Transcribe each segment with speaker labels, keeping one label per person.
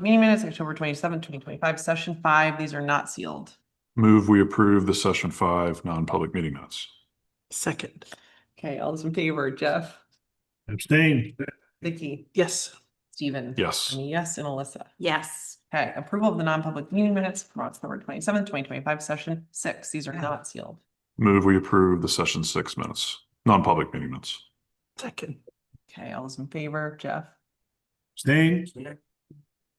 Speaker 1: Meeting minutes, October twenty seventh, twenty twenty five, session five. These are not sealed.
Speaker 2: Move we approve the session five non-public meeting minutes.
Speaker 3: Second,
Speaker 1: Okay, all those in favor, Jeff,
Speaker 4: Abstain.
Speaker 1: Vicky,
Speaker 3: yes,
Speaker 1: Steven.
Speaker 2: Yes.
Speaker 1: And a yes, and Alyssa.
Speaker 5: Yes.
Speaker 1: Okay, approval of the non-public meeting minutes from October twenty seventh, twenty twenty five, session six. These are not sealed.
Speaker 2: Move we approve the session six minutes, non-public meeting minutes.
Speaker 3: second,
Speaker 1: Okay, all those in favor, Jeff,
Speaker 4: Abstain.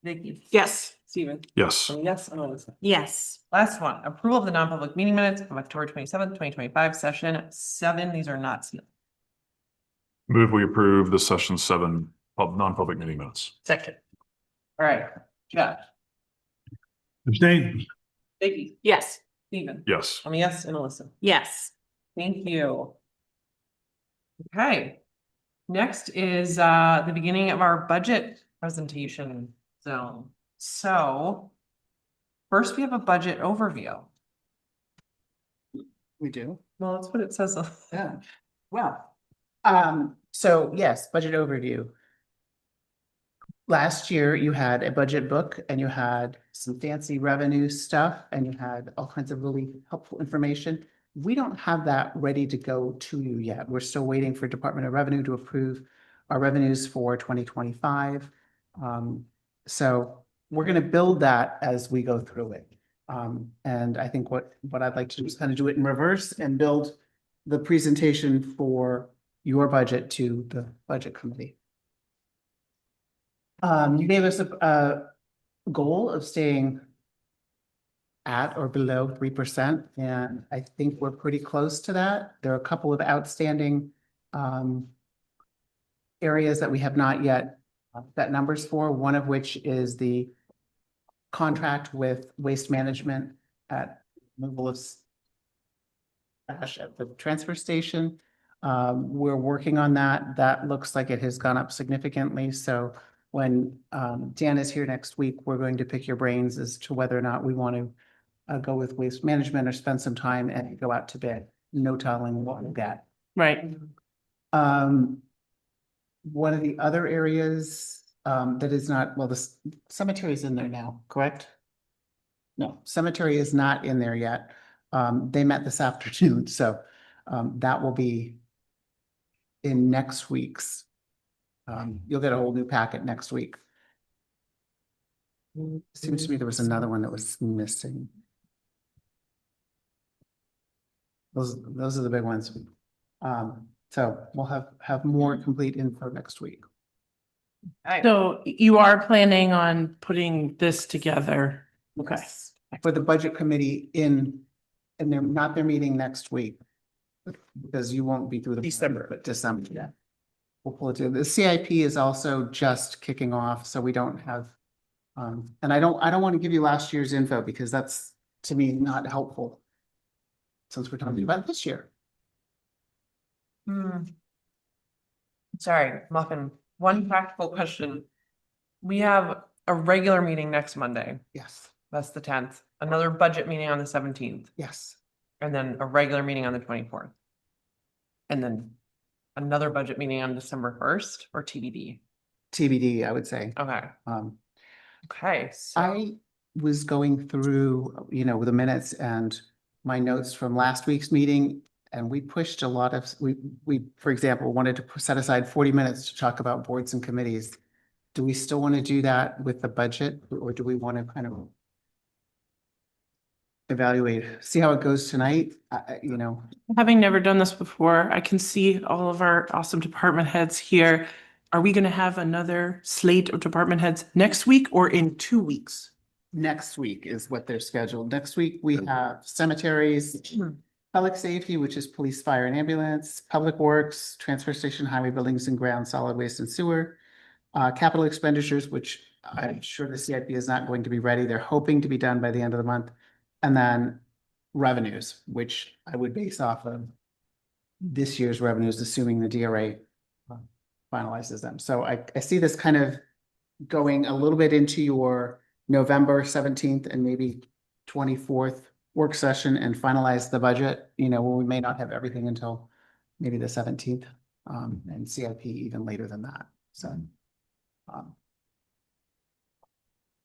Speaker 1: Vicky,
Speaker 3: yes,
Speaker 1: Steven.
Speaker 2: Yes.
Speaker 1: And a yes, and Alyssa.
Speaker 5: Yes.
Speaker 1: Last one, approval of the non-public meeting minutes from October twenty seventh, twenty twenty five, session seven. These are not sealed.
Speaker 2: Move we approve the session seven pub, non-public meeting minutes.
Speaker 3: second,
Speaker 1: All right, Jeff,
Speaker 4: Abstain.
Speaker 1: Vicky,
Speaker 5: Yes.
Speaker 1: Steven.
Speaker 2: Yes.
Speaker 1: And a yes, and Alyssa.
Speaker 5: Yes.
Speaker 1: Thank you. Okay, next is uh the beginning of our budget presentation zone. So first, we have a budget overview.
Speaker 6: We do,
Speaker 1: Well, that's what it says. on-
Speaker 6: yeah. Well, um, so yes, budget overview. Last year you had a budget book and you had some fancy revenue stuff and you had all kinds of really helpful information. We don't have that ready to go to you yet. We're still waiting for Department of Revenue to approve our revenues for twenty twenty-five. Um, so we're gonna build that as we go through it. Um, and I think what, what I'd like to do is kind of do it in reverse and build the presentation for your budget to the budget committee. Um, you gave us a, a goal of staying at or below three percent, and I think we're pretty close to that. There are a couple of outstanding um areas that we have not yet set numbers for, one of which is the contract with waste management at removal of s- trash at the transfer station. Um, we're working on that. That looks like it has gone up significantly, so when um Dan is here next week, we're going to pick your brains as to whether or not we want to uh go with waste management or spend some time and go out to bid, no telling what we'll get.
Speaker 3: right,
Speaker 6: Um, one of the other areas, um, that is not, well, the c- cemetery is in there now, correct? No, cemetery is not in there yet. Um, they met this afternoon, so, um, that will be in next week's. Um, you'll get a whole new packet next week. Seems to me there was another one that was missing. Those, those are the big ones. Um, so we'll have, have more complete info next week.
Speaker 1: Alright,
Speaker 3: so you are planning on putting this together? Okay,
Speaker 6: For the budget committee in, and they're not their meeting next week. Because you won't be through the. December. But December, yeah. We'll pull it to, the CIP is also just kicking off, so we don't have. Um, and I don't, I don't want to give you last year's info because that's, to me, not helpful. Since we're talking about this year.
Speaker 1: hmm. Sorry, Muffin, one practical question. We have a regular meeting next Monday.
Speaker 6: Yes,
Speaker 1: That's the tenth, another budget meeting on the seventeenth.
Speaker 6: yes.
Speaker 1: And then a regular meeting on the twenty-fourth. And then another budget meeting on December first or TBD.
Speaker 6: TBD, I would say.
Speaker 1: Okay,
Speaker 6: Um,
Speaker 1: okay. so-
Speaker 6: I was going through, you know, the minutes and my notes from last week's meeting. And we pushed a lot of, we, we, for example, wanted to set aside forty minutes to talk about boards and committees. Do we still want to do that with the budget or do we want to kind of evaluate, see how it goes tonight? I I- you know,
Speaker 3: having never done this before, I can see all of our awesome department heads here. Are we gonna have another slate of department heads next week or in two weeks?
Speaker 6: next week is what they're scheduled. Next week, we have cemeteries, Public safety, which is police, fire and ambulance, public works, transfer station, highway buildings and ground, solid waste and sewer. Uh, capital expenditures, which I'm sure the CIP is not going to be ready. They're hoping to be done by the end of the month. And then revenues, which I would base off of this year's revenues, assuming the DRA finalizes them. So I, I see this kind of going a little bit into your November seventeenth and maybe twenty-fourth work session and finalize the budget, you know, we may not have everything until maybe the seventeenth, um, and CIP even later than that, so. um,